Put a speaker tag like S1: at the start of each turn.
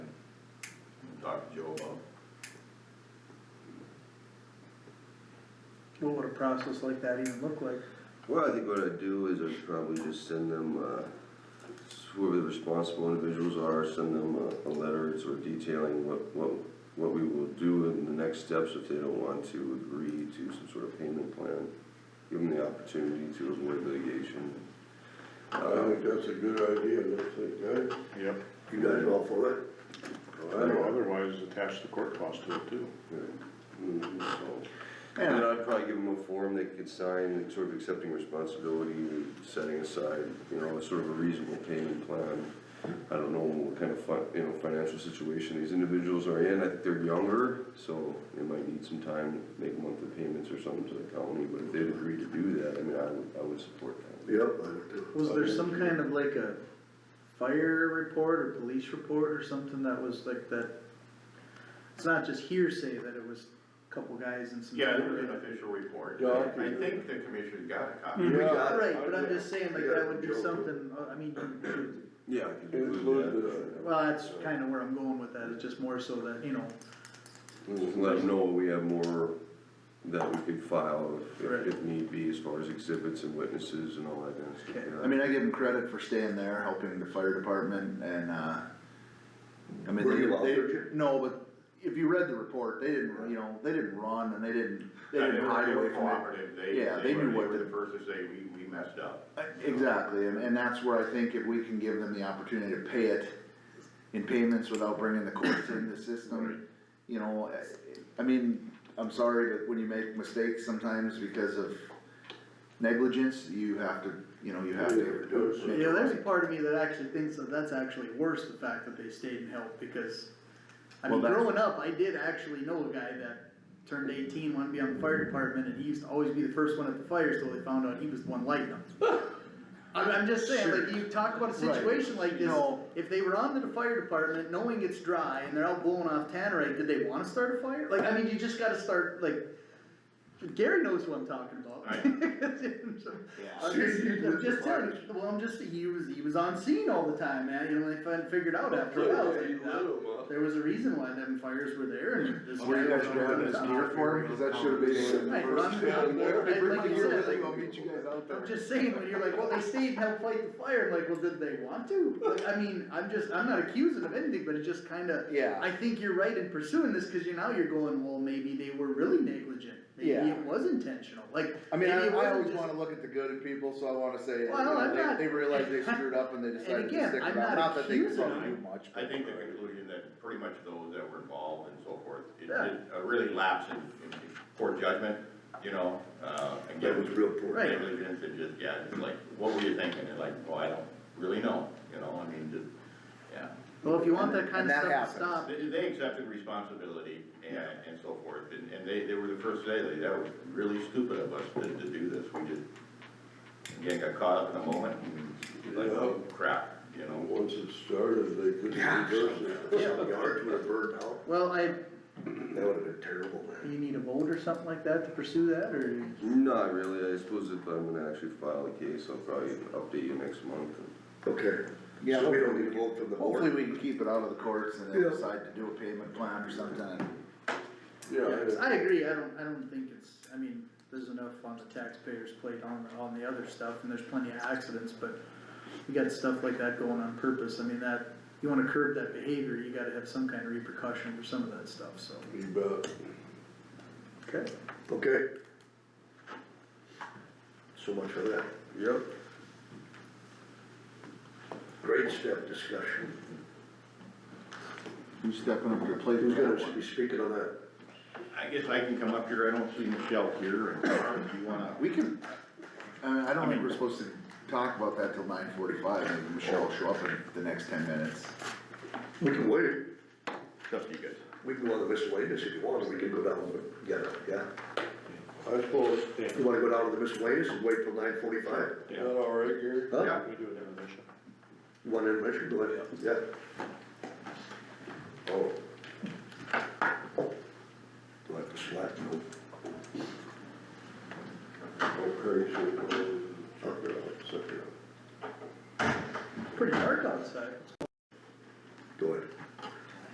S1: Joe about.
S2: What would a process like that even look like?
S3: Well, I think what I'd do is I'd probably just send them, uh, whoever the responsible individuals are, send them a, a letter sort of detailing what, what, what we will do in the next steps if they don't want to agree to some sort of payment plan. Give them the opportunity to avoid litigation.
S1: I
S3: Uh,
S1: think that's a good idea, that's a guy.
S4: Yep,
S1: You guys all for it?
S4: Other- otherwise attach the court cost to it too.
S3: mhm, so. And then I'd probably give them a form they could sign, like, sort of accepting responsibility, setting aside, you know, sort of a reasonable payment plan. I don't know what kind of fin- you know, financial situation these individuals are in, I think they're younger, so they might need some time to make monthly payments or something to the county, but if they'd agree to do that, I mean, I would, I would support that.
S1: Yep, I would do.
S2: Was there some kind of like a fire report or police report or something that was like that? It's not just hearsay that it was a couple guys and some.
S5: Yeah, there was an official report.
S1: Yeah, I
S5: I
S1: can-
S5: think the commissioner got a copy.
S1: We got it.
S2: Right, but I'm just saying like that would
S1: Yeah.
S2: be something, uh, I mean, you-
S3: Yeah. I could
S1: Include
S3: include
S1: the-
S3: that.
S2: well, that's kinda where I'm going with that, it's just more so that, you know,
S3: Just let them know we have more that we could file if-
S2: Right.
S3: if, if need be, as far as exhibits and witnesses and all that kind of stuff.
S2: Okay.
S3: yeah.
S6: I mean, I give them credit for staying there, helping the fire department and, uh, I mean,
S1: Were you
S6: they,
S1: allowed
S6: they, no, but if you read the report, they didn't, you know, they didn't run and they didn't, they didn't hide
S5: They
S6: away
S5: were
S6: from it.
S5: cooperative, they,
S6: Yeah,
S5: they
S6: they
S5: were,
S6: knew
S5: they
S6: what
S5: were
S6: to-
S5: the first to say, we, we messed up.
S6: Exactly, and, and that's where I think if we can give them the opportunity to pay it in payments without bringing the courts into the system, you know, I, I mean, I'm sorry, but when you make mistakes sometimes because of negligence, you have to, you know, you have to.
S1: Yeah,
S6: make it
S2: you know, there's a
S6: right.
S2: part of me that actually thinks that that's actually worse, the fact that they stayed and helped, because I mean,
S6: Well, that's-
S2: growing up, I did actually know a guy that turned eighteen, wanted to be on the fire department, and he used to always be the first one at the fires till they found out he was the one lighting them. I'm, I'm just saying, like, you talk about a
S6: Right.
S2: situation like this,
S6: No.
S2: if they were on to the fire department, knowing it's dry, and they're out blowing off tannerite, did they wanna start a fire? Like, I mean, you just gotta start, like, Gary knows who I'm talking about.
S5: I-
S2: I'm
S1: See,
S2: just,
S1: he
S2: I'm
S1: was
S2: just telling you, well, I'm just, he was, he was on scene all the time, man, you know, they fin- figured out after a while, like, that- there was Oh, a reason why them fires were there and this.
S6: Were you
S2: guy
S6: guys
S2: was-
S6: grabbing his gear for him, cause that should have been.
S2: Right, run down there, and like you said, like,
S6: I'll meet you guys out
S2: I'm just saying, when you're like, well, they stayed and helped fight the fire, I'm like, well, did they want to? Like, I mean, I'm just, I'm not accusing of anything, but it just kinda,
S6: Yeah,
S2: I think you're right in pursuing this, cause you, now you're going, well, maybe they were really negligent. Maybe
S6: Yeah.
S2: it was intentional, like.
S6: I mean, I,
S2: maybe it
S6: I
S2: wasn't
S6: always
S2: just-
S6: wanna look at the good in people, so I wanna say, you
S2: Well, I'm
S6: know,
S2: not-
S6: they, they realized they screwed up and they decided to
S2: again,
S6: stick
S2: I'm
S6: it out,
S2: not
S6: not that they could
S2: accusing
S6: probably do
S2: them.
S6: much.
S5: I
S6: but-
S5: think the conclusion that pretty much those that were involved and so forth, it
S2: Yeah.
S5: did a really lapse in, in poor judgment, you know, uh, and
S1: That was
S5: given
S1: real poor.
S2: Right.
S5: negligence, it just, yeah, it's like, what were you thinking? And like, well, I don't really know, you know, I mean, just, yeah.
S2: Well, if you want that
S6: And
S2: kinda
S6: that
S2: stuff
S6: happens.
S2: to stop,
S5: They, they accepted responsibility and, and so forth, and, and they, they were the first to say, like, that was really stupid of us to, to do this, we just, again, got caught up in the moment, and like, oh crap, you
S1: And
S5: know?
S1: Once it started, they couldn't reverse it. Some yards would have burned out.
S2: well, I,
S1: That would have been terrible, man.
S2: you need a vote or something like that to pursue that, or?
S3: Not really, I suppose if I'm gonna actually file a case, I'll probably update you next month.
S1: Okay.
S6: Yeah,
S1: So we
S6: hopefully-
S1: don't need to vote from the
S6: Hopefully
S1: board.
S6: we can keep it out of the courts and they'll
S1: Yeah.
S6: decide to do a payment plan or something.
S1: Yeah, I-
S2: I agree, I don't, I don't think it's, I mean, there's enough on the taxpayers' plate on, on the other stuff, and there's plenty of accidents, but you got stuff like that going on purpose, I mean, that, you wanna curb that behavior, you gotta have some kind of repercussion for some of that stuff, so.
S1: you bet.
S2: Okay.
S1: Okay. So much for that.
S3: Yep.
S1: Great step discussion.
S6: Who's stepping up to the plate?
S1: Who's gonna be speaking on that?
S5: I guess I can come up here, I don't see Michelle here, and if you wanna,
S6: We can, I mean, I don't think
S5: mean-
S6: we're supposed to talk about that till nine forty-five, maybe Michelle will show up in the next ten minutes.
S1: We can wait.
S5: it's up to you guys.
S1: We can go on the miscellaneous if you want, we can go down, but, yeah, yeah.
S7: I suppose,
S1: You wanna go down to the miscellaneous and wait till nine forty-five?
S7: is that all right, Gary?
S1: Huh?
S5: Yeah.
S7: We do an intermission.
S1: You want intermission, go ahead, yeah. Oh.
S7: Oh.
S1: Do I have to slap you?
S7: Okay, so, uh,
S1: Suck it up, suck it up.
S2: Pretty dark outside.